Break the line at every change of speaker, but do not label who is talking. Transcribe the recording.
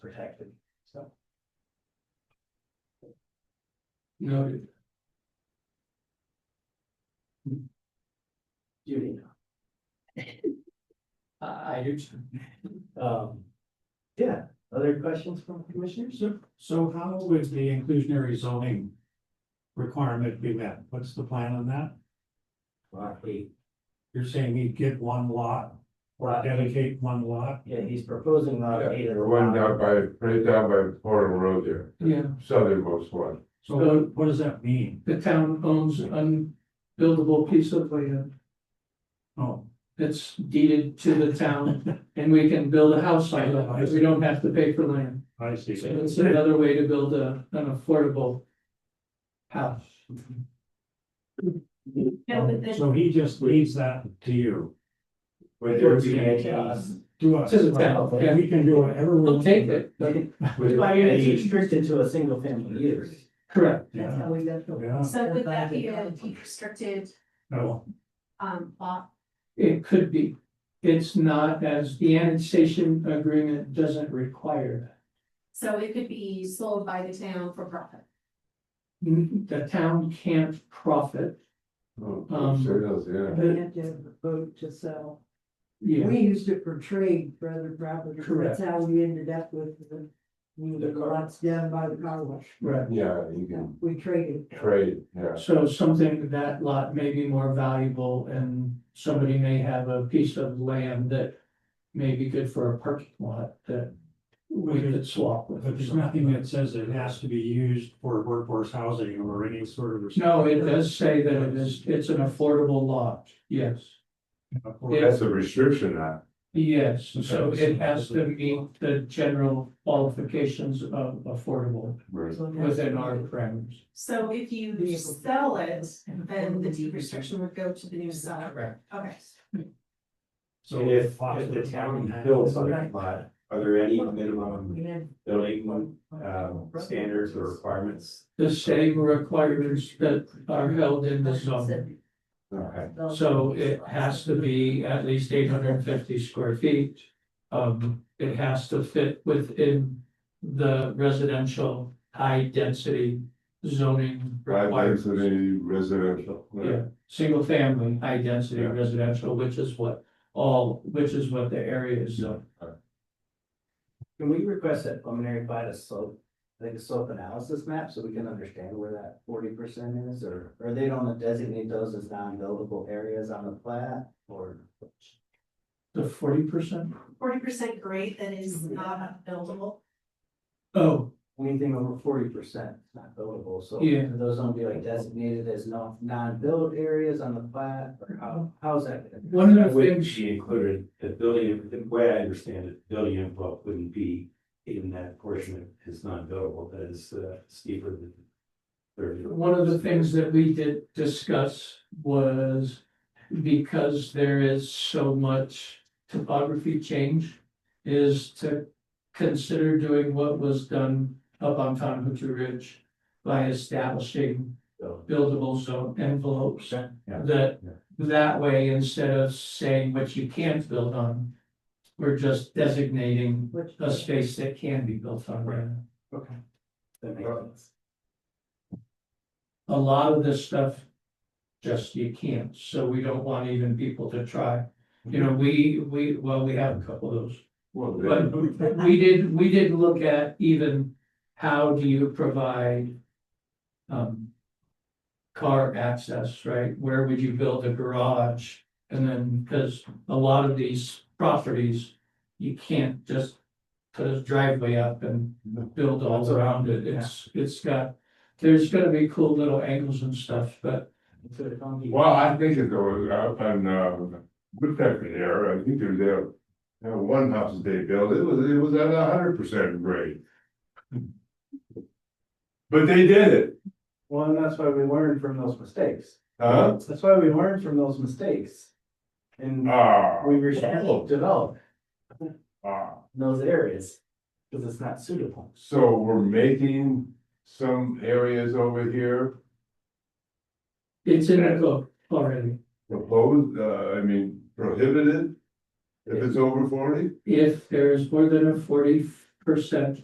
protected, so.
Noted.
Judy.
I, I do too.
Um, yeah, other questions from commissioners?
So, so how would the inclusionary zoning requirement be met? What's the plan on that?
Lot eight.
You're saying you'd get one lot,
Lot eight.
dedicate one lot?
Yeah, he's proposing lot eight. as
The one
lot-
down by, right down by Porter Road there,
Yeah,
southernmost one.
So what, what does that mean?
the town owns an unbuildable piece of land
Oh,
that's deeded to the town, and we can build a house on it, we don't have to pay for land.
I see.
So it's another way to build a, an affordable house.
No, but the,
So he just leaves that to you,
Where there would
Towards
be
the
a
edge.
chaos.
to us.
To the town, yeah.
We can do whatever we
We'll
want.
take it, but-
But it's restricted to a single family use.
correct,
that's
Yeah,
how we got the.
yeah,
So would that be a deed restricted,
no,
um, lot?
it could be. It's not as, the annexation agreement doesn't require
So it could be sold by the town for profit.
that. The town can't profit,
Oh,
Um,
sales, yeah.
They have to have a boat to sell.
yeah.
We used it for trade for other properties.
Correct.
That's how we ended up with the, the
The car-
lots down by the car wash.
Right.
Yeah, you can
We traded.
trade, yeah.
So something that lot may be more valuable and somebody may have a piece of land that may be good for a parking lot that we could swap with.
but there's nothing that says it has to be used for workforce housing or any sort of.
No, it does say that it is, it's an affordable lot, yes,
That's a restriction, that.
yes, so it has to meet the general qualifications of affordable within our parameters.
So if you sell it, then the deed restriction would go to the new seller. Okay.
So if, if the town builds on that lot, are there any minimum building, um, standards or requirements?
The same requirements that are held in the zone.
Okay.
So it has to be at least eight hundred and fifty square feet. Um, it has to fit within the residential high density zoning
Five
requirements.
density residential.
Yeah, single family, high density
Yeah.
residential, which is what all, which is what the area is zoned.
Can we request that preliminary by a slope, like a slope analysis map, so we can understand where that forty percent is, or, or they don't designate those as non-buildable areas on the plat, or?
The forty percent?
Forty percent grade that is not buildable.
Oh,
Anything over forty percent is not buildable, so
Yeah.
those don't be like designated as non, non-build areas on the plat, or how, how's that? gonna-
one of the
Wouldn't
things,
be included, the building, the way I understand it, building envelope wouldn't be in that portion that is non-buildable, that is uh, steeper than. thirty.
one of the things that we did discuss was because there is so much topography change is to consider doing what was done up on Tonahutchee Ridge by establishing
So,
buildable zone envelopes
Yeah.
that,
Yeah.
that way, instead of saying what you can't build on, we're just designating
Which.
a space that can be built on land.
Okay. That makes sense.
a lot of this stuff just you can't, so we don't want even people to try. You know, we, we, well, we have a couple of those,
Well,
but
then,
we did, we did look at even how do you provide um car access, right? Where would you build a garage? And then, because a lot of these properties, you can't just put a driveway up and build all around it. It's, it's got, there's gonna be cool little angles and stuff, but
So it don't be-
well, I think it was up on, um, Woodpecker there, I think there's there. That one house that they built, it was, it was at a hundred percent grade. But they did it,
Well, and that's why we learn from those mistakes.
huh?
That's why we learn from those mistakes. And
Ah.
we restrict develop
Ah.
in those areas, because it's not suitable.
So we're making some areas over here
it's in the book already.
proposed, uh, I mean prohibited. If it's over forty?
If there is more than a forty percent